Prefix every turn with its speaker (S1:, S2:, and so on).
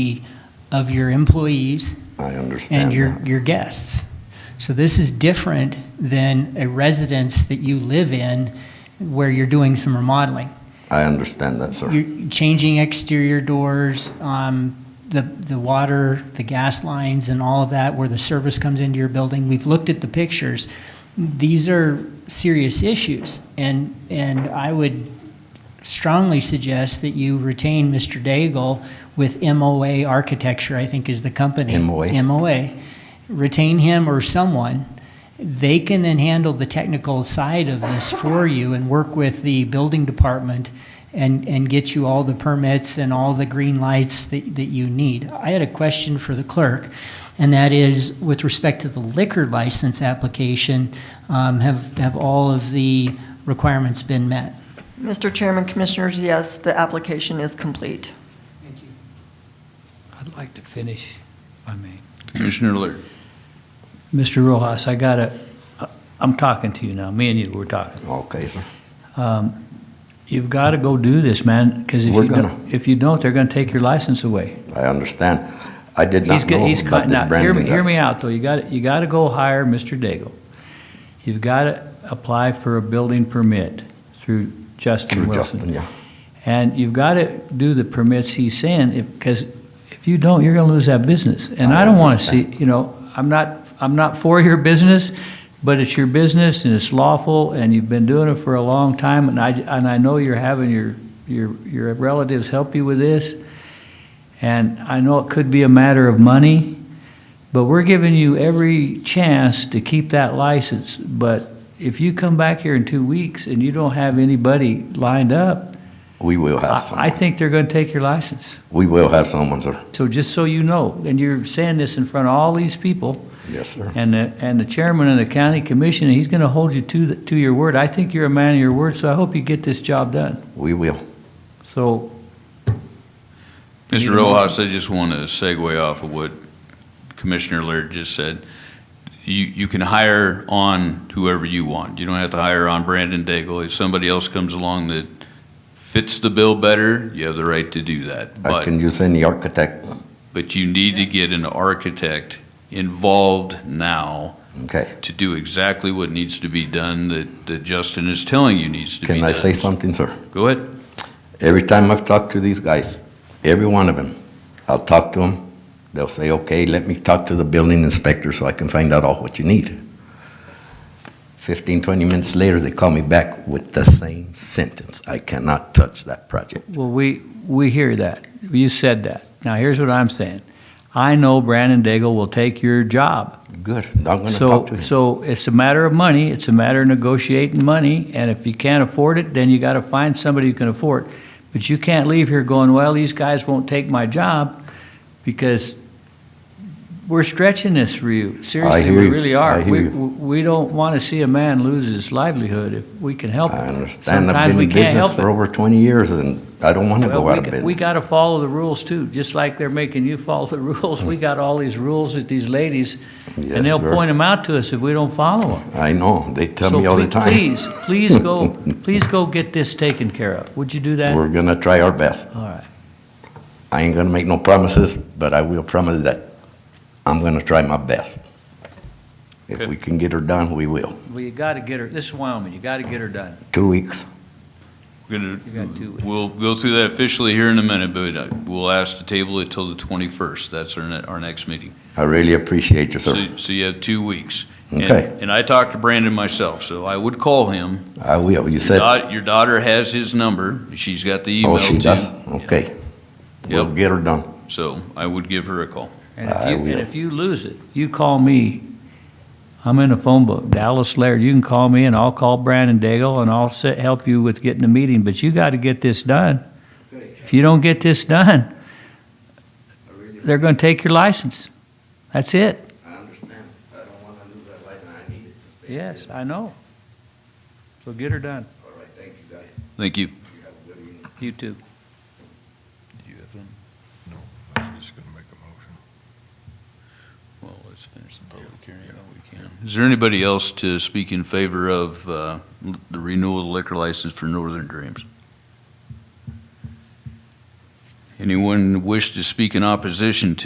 S1: of your employees
S2: I understand
S1: and your,
S2: that.
S1: your guests. So this is different than a residence that you live in where you're doing some remodeling.
S2: I understand that, sir.
S1: You're changing exterior doors, um, the, the water, the gas lines and all of that, where the service comes into your building. We've looked at the pictures. These are serious issues. And, and I would strongly suggest that you retain Mr. Daigle with MOA Architecture, I think is the company.
S2: MOA.
S1: MOA. Retain him or someone. They can then handle the technical side of this for you and work with the building department and, and get you all the permits and all the green lights that, that you need. I had a question for the clerk, and that is with respect to the liquor license application, um, have, have all of the requirements been met?
S3: Mr. Chairman, Commissioners, yes, the application is complete.
S4: I'd like to finish, if I may.
S5: Commissioner Lear.
S4: Mr. Rojas, I gotta, uh, I'm talking to you now, me and you, we're talking.
S2: Okay, sir.
S4: Um, You've gotta go do this, man, because if
S2: We're
S4: you
S2: gonna.
S4: don't, if you don't, they're gonna take your license away.
S2: I understand. I did
S4: He's
S2: not
S4: go-
S2: know
S4: he's
S2: about
S4: con-
S2: this
S4: now, hear
S2: Brandon
S4: me-
S2: guy.
S4: Hear me out, though, you gotta, you gotta go hire Mr. Daigle. You've gotta apply for a building permit through Justin
S2: Through
S4: Wilson.
S2: Justin, yeah.
S4: And you've got to do the permits he's saying, because if you don't, you're going to lose that business. And
S2: I
S4: I don't want to see,
S2: understand.
S4: you know, I'm not, I'm not for your business, but it's your business and it's lawful and you've been doing it for a long time. And I, and I know you're having your, your, your relatives help you with this. And I know it could be a matter of money, but we're giving you every chance to keep that license. But if you come back here in two weeks and you don't have anybody lined up,
S2: We will have
S4: I I
S2: someone.
S4: think they're going to take your license.
S2: We will have someone, sir.
S4: So just so you know, and you're saying this in front of all these people,
S2: Yes, sir.
S4: and the, and the chairman of the county commission, he's going to hold you to, the- to your word. I think you're a man of your word, so I hope you get this job done.
S2: We will.
S4: So,
S5: Mr. Rojas, I just want to segue off of what Commissioner Lear just said. You, you can hire on whoever you want. You don't have to hire on Brandon Daigle. If somebody else comes along that fits the bill better, you have the right to do that.
S2: I
S5: But,
S2: can use any architect.
S5: but you need to get an architect involved now
S2: Okay.
S5: to do exactly what needs to be done that, that Justin is telling you needs to be done.
S2: Can I say something, sir?
S5: Go ahead.
S2: Every time I've talked to these guys, every one of them, I'll talk to them. They'll say, okay, let me talk to the building inspector so I can find out all what you need. 15, 20 minutes later, they call me back with the same sentence. I cannot touch that project.
S4: well, we, we hear that. You said that. Now, here's what I'm saying. I know Brandon Daigle will take your job.
S2: Good, not gonna talk to
S4: So,
S2: him.
S4: so it's a matter of money, it's a matter of negotiating money, and if you can't afford it, then you gotta find somebody who can afford. it. But you can't leave here going, well, these guys won't take my job, because we're stretching this for you. Seriously,
S2: hear
S4: we
S2: you.
S4: really are.
S2: I hear
S4: We,
S2: you.
S4: we don't wanna see a man lose his livelihood if we can help.
S2: I
S4: it.
S2: understand. I've
S4: Sometimes
S2: been
S4: we
S2: in
S4: can't
S2: business
S4: help
S2: for
S4: it.
S2: over 20 years, and I don't want to
S4: Well,
S2: go
S4: we
S2: out of
S4: g- We
S2: business.
S4: gotta follow the rules too, just like they're making you follow the rules. We got all these rules with these ladies,
S2: Yes,
S4: and they'll
S2: sir.
S4: point them out to us if we don't follow them.
S2: I know, they tell
S4: So
S2: me all the
S4: ple-
S2: time.
S4: Please, please go, please go get this taken care of. Would you do that?
S2: We're gonna try our best.
S4: All right.
S2: I ain't gonna make no promises, but I will promise that I'm gonna try my best. If
S5: Good.
S2: we can get her done, we will.
S4: Well, you gotta get her, this is Wyoming, you gotta get her done.
S2: Two weeks.
S5: We're gonna-
S4: You got two weeks.
S5: We'll go through that officially here in a minute, but uh, we'll ask to table it till the 21st. That's our, ne- our next meeting.
S2: I really appreciate you, sir.
S5: So, so you have two weeks. And-
S2: Okay,
S5: And I talked to Brandon myself, so I would call him.
S2: I will. You
S5: Your
S2: said,
S5: daugh- your daughter has his number. She's got the email
S2: oh,
S5: too.
S2: she does? Okay. We'll
S5: Yep.
S2: get her done.
S5: So I would give her a call.
S4: And
S2: I
S4: if you,
S2: will.
S4: and if you lose it, you call me. I'm in a phone book, Dallas Laird. You can call me and I'll call Brandon Daigle and I'll se- help you with getting the meeting, but you gotta get this done. If you don't get this done, they're gonna take your license. That's it.
S2: I understand. I don't wanna lose that light, and I need it to stay.
S4: Yes, I know. So get her done.
S2: All right, thank you, guys.
S5: Thank you.
S2: You have a good evening.
S4: You too.
S6: I was just gonna make a motion.
S5: Well, let's finish the public hearing we can. Is there anybody else to speak in favor of uh, the renewal of the liquor license for Northern Dreams? Anyone wish to speak in opposition to